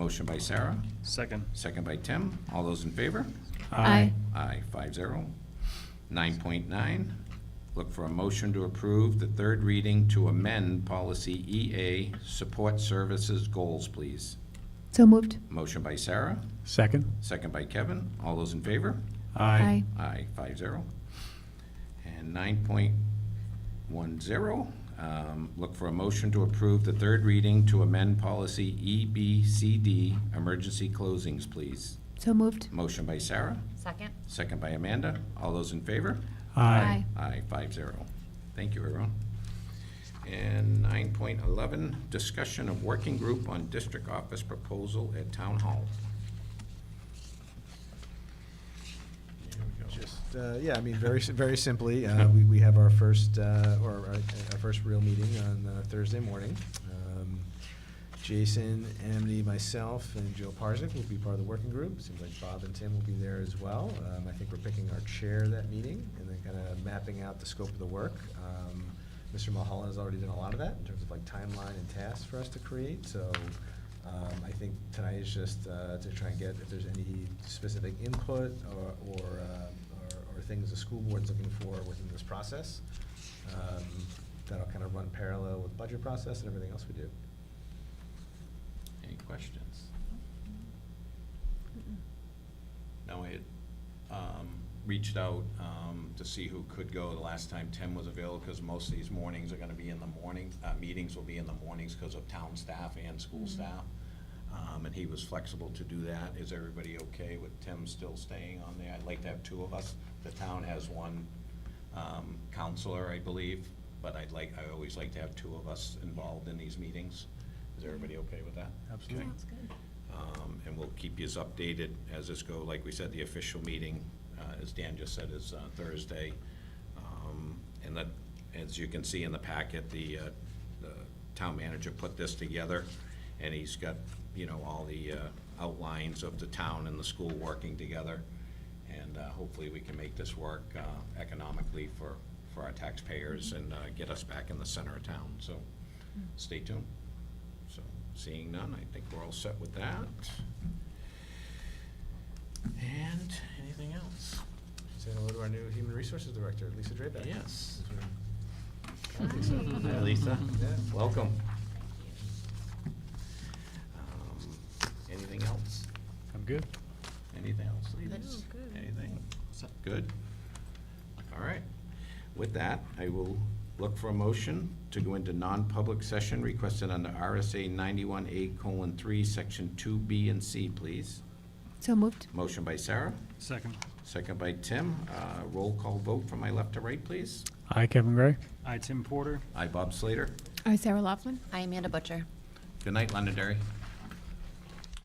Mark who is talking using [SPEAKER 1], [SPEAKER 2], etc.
[SPEAKER 1] Motion by Sarah,
[SPEAKER 2] Second.
[SPEAKER 1] second by Tim. All those in favor? Aye, five zero. Nine point nine, look for a motion to approve the third reading to amend policy EA, support services goals, please.
[SPEAKER 3] So moved.
[SPEAKER 1] Motion by Sarah,
[SPEAKER 2] Second.
[SPEAKER 1] second by Kevin. All those in favor?
[SPEAKER 3] Aye.
[SPEAKER 1] Aye, five zero. And nine point one zero, um, look for a motion to approve the third reading to amend policy E EBCD, emergency closings, please.
[SPEAKER 3] So moved.
[SPEAKER 1] Motion by Sarah,
[SPEAKER 4] Second?
[SPEAKER 1] second by Amanda. All those in favor?
[SPEAKER 3] Aye.
[SPEAKER 1] Aye, five zero. Thank you, everyone. And nine point eleven, discussion of working group on district office proposal at town hall.
[SPEAKER 5] Just, uh, yeah, I mean, very, s- very simply, uh, we, we have our first, uh, or our, our first real meeting on uh, Thursday morning. Um, Jason, Amity, myself, and Joe Parzak will be part of the working group. Seems like Bob and Tim will be there as well. Um, I think we're picking our chair that meeting and then kind of mapping out the scope of the work. Um, Mr. Mulholland has already done a lot of that in terms of like timeline and tasks for us to create, so um, I think tonight is just uh, to try and get if there's any specific input or, or, uh, or- or things the school board's looking for within this process. Um, That'll kind of run parallel with budget process and everything else we do.
[SPEAKER 1] Any questions?
[SPEAKER 6] No, it, um, reached out, um, to see who could go. The last time Tim was available, because most of these mornings are gonna be in the morning, uh, meetings will be in the mornings because of town staff and school staff. Um, and he was flexible to do that. Is everybody okay with Tim still staying on there? I'd like to have two of us. The town has one, um, counselor, I believe, but I'd like, I always like to have two of us involved in these meetings. Is everybody okay with that?
[SPEAKER 5] Absolutely.
[SPEAKER 6] Okay. Um, And we'll keep yous updated as this go. Like we said, the official meeting, uh, as Dan just said, is uh, Thursday. Um, And that, as you can see in the packet, the uh, the town manager put this together, and he's got, you know, all the uh, outlines of the town and the school working together. And uh, hopefully, we can make this work uh, economically for, for our taxpayers and uh, get us back in the center of town. So stay tuned. So, seeing none, I think we're all set with that. And anything else?
[SPEAKER 5] Say hello to our new Human Resources Director, Lisa Drabeck.
[SPEAKER 6] Yes.
[SPEAKER 4] Hi.
[SPEAKER 6] Lisa.
[SPEAKER 5] Yeah.
[SPEAKER 6] Welcome. Um, Anything else?
[SPEAKER 2] I'm good.
[SPEAKER 6] Anything else? Lisa?
[SPEAKER 4] No, good.
[SPEAKER 6] Anything? Good? All right.
[SPEAKER 1] With that, I will look for a motion to go into non-public session requested under RSA ninety-one A colon three, section two B and C, please.
[SPEAKER 3] So moved.
[SPEAKER 1] Motion by Sarah,
[SPEAKER 2] Second.
[SPEAKER 1] second by Tim. Uh, roll call vote from my left to right, please.
[SPEAKER 2] Aye, Kevin Gray. Aye, Tim Porter.
[SPEAKER 1] I, Bob Slater.
[SPEAKER 3] Aye, Sarah Laughlin.
[SPEAKER 4] Amanda Butcher.
[SPEAKER 1] Good night, Londonderry.